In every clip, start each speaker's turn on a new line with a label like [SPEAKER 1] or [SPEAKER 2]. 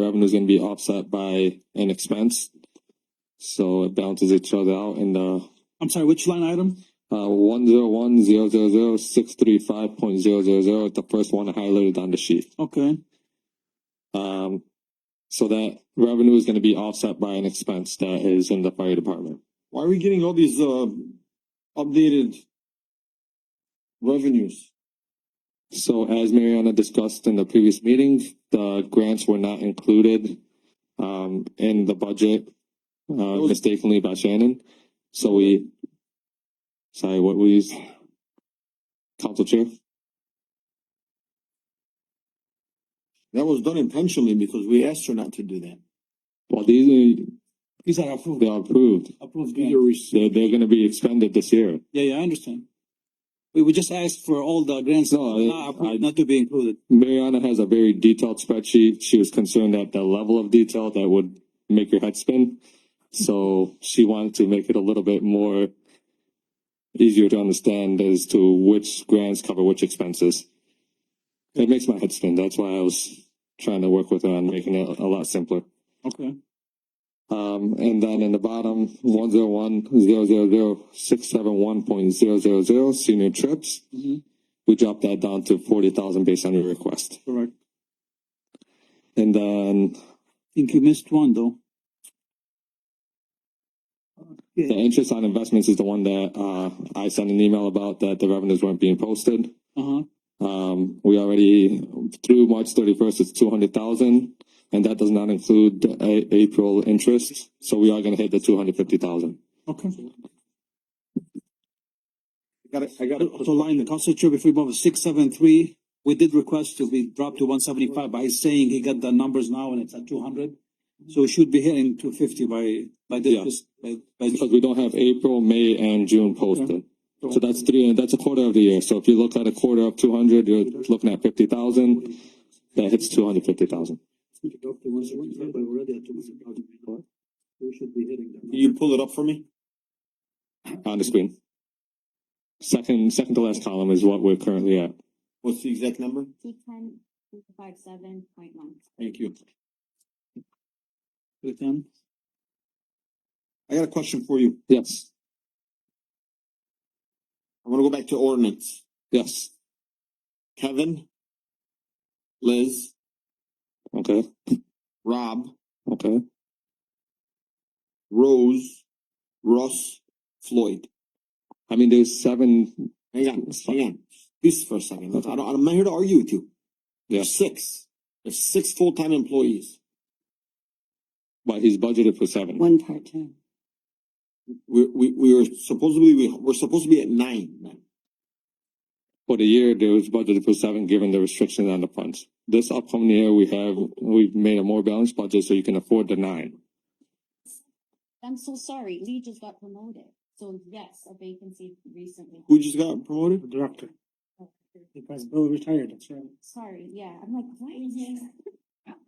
[SPEAKER 1] revenue is going to be offset by an expense. So it balances each other out in the
[SPEAKER 2] I'm sorry, which line item?
[SPEAKER 1] uh, one zero one zero zero zero six three five point zero zero zero. The first one highlighted on the sheet.
[SPEAKER 2] Okay,
[SPEAKER 1] Um, so that revenue is going to be offset by an expense that is in the fire department.
[SPEAKER 3] Why are we getting all these uh updated revenues?
[SPEAKER 1] So as Mariana discussed in the previous meeting, the grants were not included um, in the budget uh, mistakenly by Shannon. So we, sorry, what we use? Council chair.
[SPEAKER 3] That was done intentionally because we asked her not to do that.
[SPEAKER 1] Well, these
[SPEAKER 2] these are
[SPEAKER 1] are,
[SPEAKER 2] approved,
[SPEAKER 1] they are approved.
[SPEAKER 2] approved
[SPEAKER 3] These are
[SPEAKER 2] grants.
[SPEAKER 3] receipts.
[SPEAKER 1] They're, they're going to be expended this year.
[SPEAKER 2] Yeah, yeah, I understand. We would just ask for all the grants
[SPEAKER 1] No, I-
[SPEAKER 2] not
[SPEAKER 1] I-
[SPEAKER 2] approved, not to be included.
[SPEAKER 1] Mariana has a very detailed spreadsheet. She was concerned at the level of detail that would make your head spin. So she wanted to make it a little bit more easier to understand as to which grants cover which expenses. It makes my head spin. That's why I was trying to work with her on making it a lot simpler.
[SPEAKER 2] Okay,
[SPEAKER 1] Um, and then in the bottom, one zero one zero zero zero six seven one point zero zero zero senior trips.
[SPEAKER 2] Mhm.
[SPEAKER 1] We dropped that down to forty thousand based on your request.
[SPEAKER 2] correct.
[SPEAKER 1] And then
[SPEAKER 2] I think you missed one though.
[SPEAKER 1] the interest on investments is the one that uh, I sent an email about that the revenues weren't being posted.
[SPEAKER 2] Uh huh,
[SPEAKER 1] Um, we already through March thirty first it's two hundred thousand, and that does not include a- April interest. So we are going to hit the two hundred fifty thousand.
[SPEAKER 2] okay.
[SPEAKER 3] I gotta, I gotta.
[SPEAKER 2] So line the council chair before we move six, seven, three, we did request to be dropped to one seventy five, but he's saying he got the numbers now and it's at two hundred. So we should be hitting two fifty by, by
[SPEAKER 1] Yeah.
[SPEAKER 2] this, by, by.
[SPEAKER 1] because we don't have April, May, and June posted. So that's three, that's a quarter of the year. So if you look at a quarter of two hundred, you're looking at fifty thousand. That hits two hundred fifty thousand.
[SPEAKER 3] Can you pull it up for me?
[SPEAKER 1] on the screen. Second, second to last column is what we're currently at.
[SPEAKER 3] What's the exact number?
[SPEAKER 4] two ten, two five seven point one.
[SPEAKER 3] Thank you.
[SPEAKER 2] Within.
[SPEAKER 3] I got a question for you.
[SPEAKER 1] Yes,
[SPEAKER 3] I wanna go back to ordinance.
[SPEAKER 1] yes,
[SPEAKER 3] Kevin, Liz,
[SPEAKER 1] okay,
[SPEAKER 3] Rob,
[SPEAKER 1] okay,
[SPEAKER 3] Rose, Russ, Floyd.
[SPEAKER 1] I mean, there's seven,
[SPEAKER 3] Hang on, hang on. This for a second. I don't, I'm not here to argue with you. There's
[SPEAKER 1] yes,
[SPEAKER 3] six. There's six full-time employees.
[SPEAKER 1] but he's budgeted for seven.
[SPEAKER 4] One part-time.
[SPEAKER 3] We, we, we were supposedly, we, we're supposed to be at nine now.
[SPEAKER 1] For the year, there was budgeted for seven, given the restrictions on the funds. This upcoming year, we have, we've made a more balanced budget, so you can afford the nine.
[SPEAKER 4] I'm so sorry, Lee just got promoted, so yes, a vacancy recently.
[SPEAKER 3] Who just got promoted?
[SPEAKER 5] director, because
[SPEAKER 2] oh,
[SPEAKER 5] Bill retired, that's right.
[SPEAKER 4] Sorry, yeah, I'm like, why is he?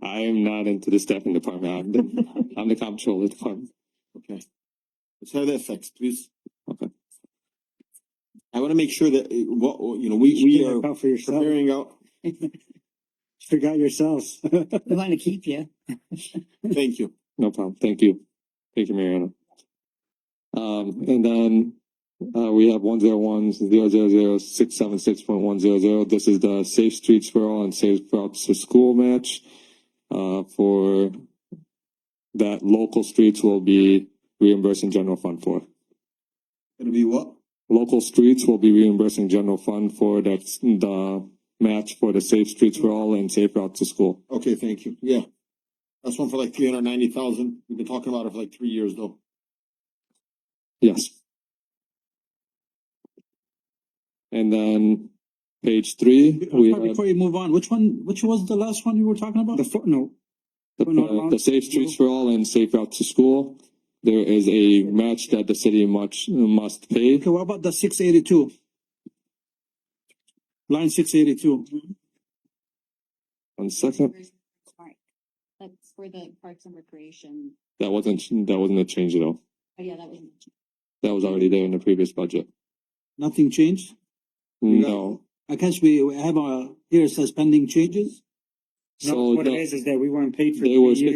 [SPEAKER 1] I am not into the staffing department. I'm the, I'm the comptroller department.
[SPEAKER 3] Okay. Let's have that fixed, please.
[SPEAKER 1] Okay.
[SPEAKER 3] I wanna make sure that, uh, what, what, you know, we, we
[SPEAKER 5] Look
[SPEAKER 3] are
[SPEAKER 5] out for yourself,
[SPEAKER 3] preparing out,
[SPEAKER 5] forgot yourselves.
[SPEAKER 6] We want to keep you.
[SPEAKER 3] thank you.
[SPEAKER 1] No problem. Thank you. Thank you, Mariana. Um, and then, uh, we have one zero one zero zero zero six seven six point one zero zero. This is the Safe Streets for All and Safe Routes to School match. Uh, for that local streets will be reimbursing general fund for.
[SPEAKER 3] Gonna be what?
[SPEAKER 1] Local streets will be reimbursing general fund for that, the match for the Safe Streets for All and Safe Routes to School.
[SPEAKER 3] Okay, thank you, yeah. That's one for like three hundred ninety thousand, we've been talking about it for like three years though.
[SPEAKER 1] Yes. And then page three, we
[SPEAKER 2] Sorry,
[SPEAKER 1] have
[SPEAKER 2] Before you move on, which one, which was the last one you were talking about?
[SPEAKER 5] The footnote,
[SPEAKER 1] the, the Safe Streets for All and Safe Route to School. There is a match that the city much must pay.
[SPEAKER 2] Okay, what about the six eighty-two? Line six eighty-two,
[SPEAKER 1] One second,
[SPEAKER 4] Sorry. That's for the Parks and Recreation,
[SPEAKER 1] that wasn't, that wasn't a change at all.
[SPEAKER 4] oh yeah, that was.
[SPEAKER 1] That was already there in the previous budget.
[SPEAKER 2] nothing changed?
[SPEAKER 1] No,
[SPEAKER 2] I guess we we have a, here it says pending changes.
[SPEAKER 1] No,
[SPEAKER 2] So
[SPEAKER 1] what it
[SPEAKER 2] the-
[SPEAKER 1] is, is that we weren't paid for
[SPEAKER 2] They
[SPEAKER 1] three
[SPEAKER 2] was-
[SPEAKER 1] years.